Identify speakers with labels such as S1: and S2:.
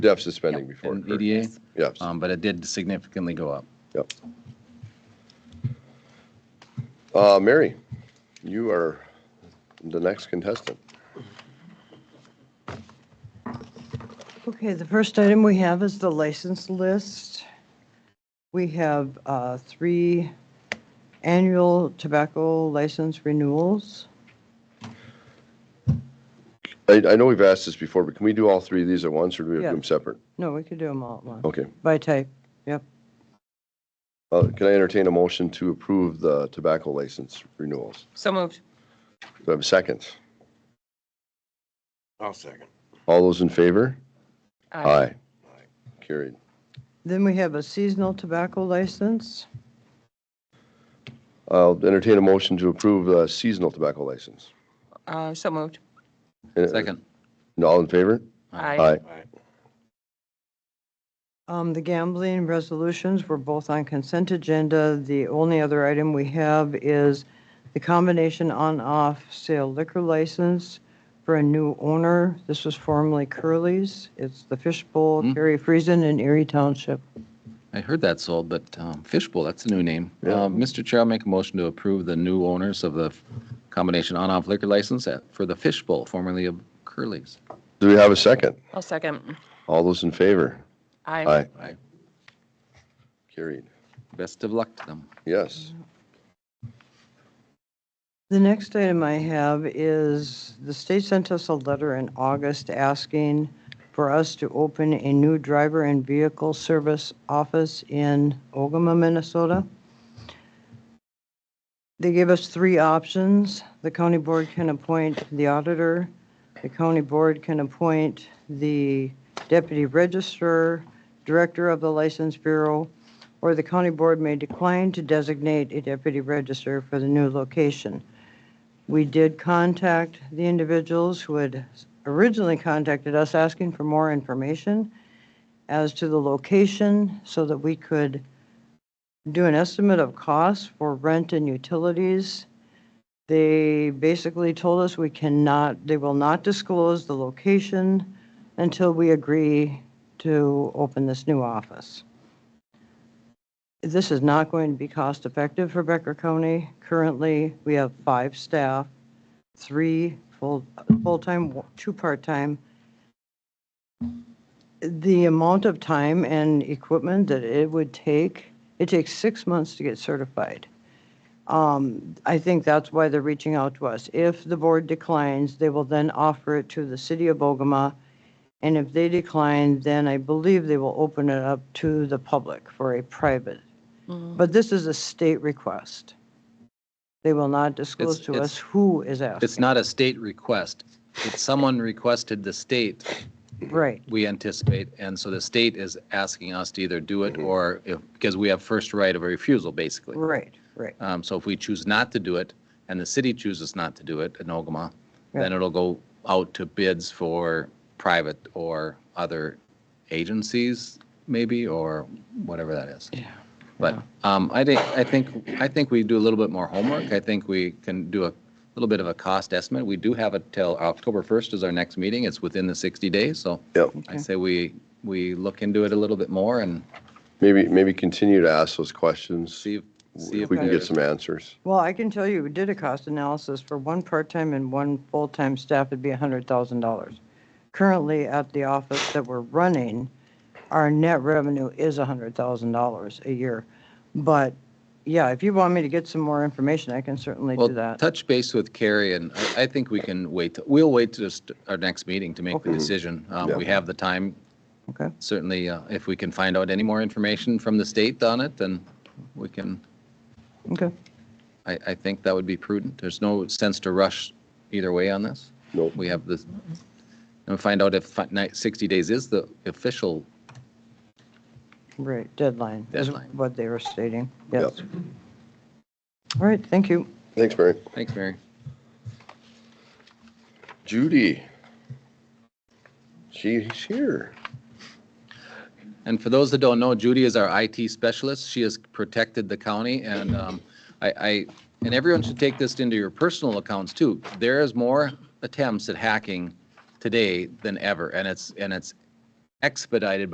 S1: deficit spending before.
S2: in
S1: it occurred.
S2: EDA,
S1: Yes,
S2: um, but it did significantly go up.
S1: yep. Uh, Mary, you are the next contestant.
S3: Okay, the first item we have is the license list. We have uh, three annual tobacco license renewals.
S1: I, I know we've asked this before, but can we do all three of these at once, or do we have to do
S3: Yeah.
S1: them separate?
S3: No, we could do them all at once,
S1: Okay.
S3: by type, yep.
S1: Uh, Can I entertain a motion to approve the tobacco license renewals?
S4: So moved.
S1: Do I have a second?
S5: I'll second.
S1: All those in favor?
S4: Aye.
S1: Carried.
S3: Then we have a seasonal tobacco license.
S1: I'll entertain a motion to approve the seasonal tobacco license.
S4: Uh, So moved.
S1: Uh,
S2: Second,
S1: and All in favor?
S4: Aye.
S5: Aye.
S3: Um, The gambling resolutions were both on consent agenda. The only other item we have is the combination on-off sale liquor license for a new owner. This was formerly Curly's. It's the Fishbowl,
S2: Hmm.
S3: Gary Friesen in Erie Township.
S2: I heard that sold, but um, Fishbowl, that's a new name. Uh, Mr. Chair, I'll make a motion to approve the new owners of the combination on-off liquor license at- for the Fishbowl, formerly of Curly's.
S1: Do we have a second?
S4: I'll second.
S1: All those in favor?
S4: Aye.
S2: Aye.
S1: Carried.
S2: Best of luck to them.
S1: Yes.
S3: The next item I have is, the state sent us a letter in August asking for us to open a new driver and vehicle service office in Ogama, Minnesota. They gave us three options. The county board can appoint the auditor, the county board can appoint the deputy registrar, director of the license bureau, or the county board may decline to designate a deputy register for the new location. We did contact the individuals who had originally contacted us asking for more information as to the location so that we could do an estimate of costs for rent and utilities. They basically told us we cannot, they will not disclose the location until we agree to open this new office this is not going to be cost-effective for Becker County. Currently, we have five staff, three full, full-time, two part-time. The amount of time and equipment that it would take, it takes six months to get certified. Um, I think that's why they're reaching out to us. If the board declines, they will then offer it to the city of Ogama. And if they decline, then I believe they will open it up to the public for a private. But this is a state request. They will not disclose
S2: It's-
S3: to
S2: it's-
S3: us who is asking.
S2: It's not a state request. It's someone requested the state,
S3: Right,
S2: we anticipate, and so the state is asking us to either do
S1: Mm-hmm.
S2: it or if, because we have first right of refusal, basically.
S3: right, right.
S2: Um, So if we choose not to do it, and the city chooses not to do it in Ogama, then
S3: Yeah.
S2: it'll go out to bids for private or other agencies, maybe, or whatever that is. Yeah. But um, I think, I think, I think we do a little bit more homework. I think we can do a little bit of a cost estimate. We do have it till October 1st is our next meeting. It's within the 60 days, so
S1: Yep.
S2: I say we, we look into it a little bit more and
S1: Maybe, maybe continue to ask those questions.
S2: see, if- see
S1: If
S2: if
S1: we can get
S2: there's-
S1: some answers.
S3: Well, I can tell you, we did a cost analysis for one part-time and one full-time staff, it'd be $100,000. Currently, at the office that we're running, our net revenue is $100,000 a year. But, yeah, if you want me to get some more information, I can certainly
S2: Well,
S3: do that.
S2: touch base with Carrie, and I, I think we can wait, we'll wait to just our next meeting to make the
S3: Okay.
S2: decision. Um,
S1: Yeah.
S2: We have the time,
S3: Okay,
S2: certainly, uh, if we can find out any more information from the state on it, then we can,
S3: okay.
S2: I, I think that would be prudent. There's no sense to rush either way on this.
S1: Nope.
S2: We have this, and find out if fi- ni- 60 days is the official,
S3: Right, deadline is
S2: Deadline.
S3: what they were stating,
S1: Yep.
S3: yes. All right, thank you.
S1: Thanks, Mary.
S2: thanks, Mary.
S1: Judy. She's here.
S2: And for those that don't know, Judy is our IT specialist. She has protected the county and um, I, I, and everyone should take this into your personal accounts too. There is more attempts at hacking today than ever and it's, and it's expedited